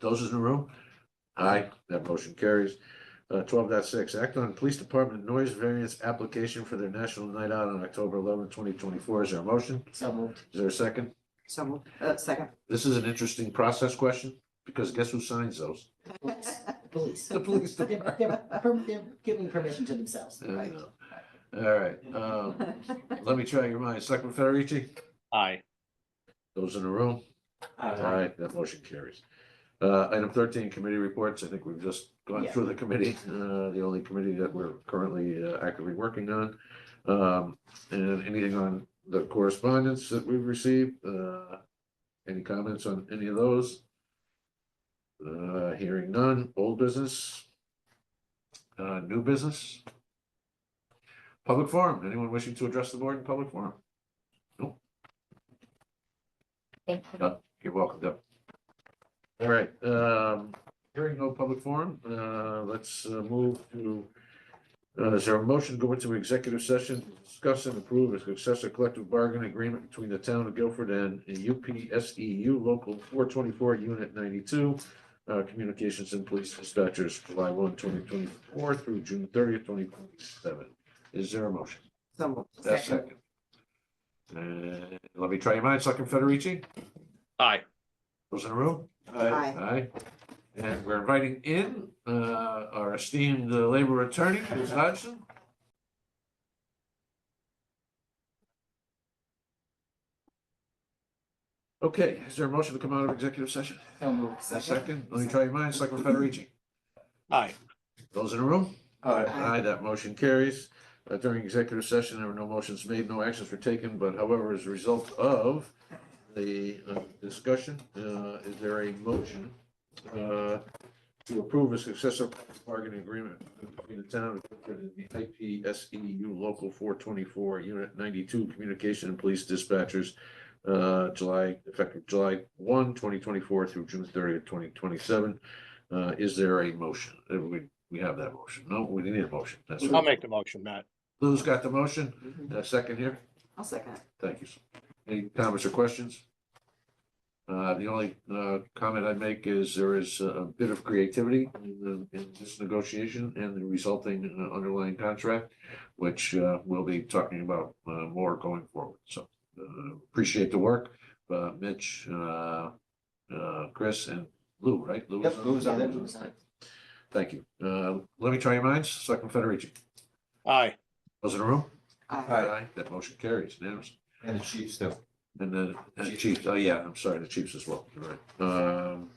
Those in the room? Aye, that motion carries. Uh, 12.6. act on police department noise variance application for their national night out on October eleventh, twenty twenty-four. Is there a motion? So moved. Is there a second? So moved. Uh, second. This is an interesting process question, because guess who signs those? Police. The police They're, department. they're per- they're giving permission to themselves. There you go. All right, um, let me try your minds. Selectman Federici, Aye. those in the room? Uh, Aye, that motion carries. Uh, item thirteen, committee reports. I think we've just gone Yeah. through the committee, uh, the only committee that we're currently uh, actively working on. Um, and anything on the correspondence that we've received, uh, any comments on any of those? Uh, hearing none, old business. Uh, new business. Public forum, anyone wishing to address the board in public forum? Thank you. Uh, You're welcome, Deb. All right, um, hearing no public forum, uh, let's uh, move to, uh, is there a motion to go into executive session, to discuss and approve a successor collective bargaining agreement between the town of Guilford and UPSEU E Local four twenty-four, Unit ninety-two, uh, Communications and Police Dispatchers, July 1, 2024 through June thirtieth, twenty twenty-seven. Is there a motion? So moved. That's second. And let me try your minds, Selectman Federici, Aye. those in the room? Aye. Aye. And we're inviting in uh, our esteemed uh, labor attorney, Ms. Hodgson. Okay, is there a motion to come out of executive session? So moved. A second, let me try your minds, Selectman Federici. Aye. Those in the room? Aye. Aye, that motion carries. Uh, During executive session, there were no motions made, no actions were taken, but however, as a result of the uh, discussion, uh, is there a motion uh, to approve a successor bargaining agreement between the town of Guilford and the IPSEU E Local four twenty-four, Unit ninety-two, Communication and Police Dispatchers, uh, July, effective July 1, 2024, through June thirtieth, twenty twenty-seven. Uh, Is there a motion? Uh, We we have that motion. No, we need a motion. That's I'll right. make the motion, Matt. Lou's got the motion. Mhm. A second here. I'll second. Thank you. Any comments or questions? Uh, the only, uh, comment I make is there is a bit of creativity in, the- in this negotiation and the resulting uh, underlying contract, which, uh, we'll be talking about, uh, more going forward. So, uh, appreciate the work, uh, Mitch, uh, uh, Chris and Lou, right? Lou was Yep, Lou's on it. Lou's on it. Thank you. Uh, let me try your minds. Selectman Federici, Aye. those in the room? Aye. That motion carries unanimously. And the Chiefs too. And the and the Chiefs, oh yeah, I'm sorry, the Chiefs as well, You're right. Um,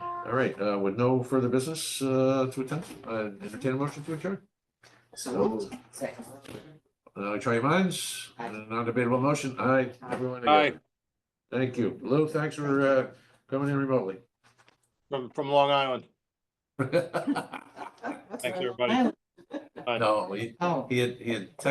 all right, uh, with no further business, uh, to attend, uh, entertain a motion to adjourn. So moved. Second. Uh, try your minds, Uh, Aye. non-debatable motion, aye, everyone. Aye. together. Thank you. Lou, thanks for, uh, coming in remotely. From, from Long Island. Thanks, everybody. No, he, Oh. he had, he had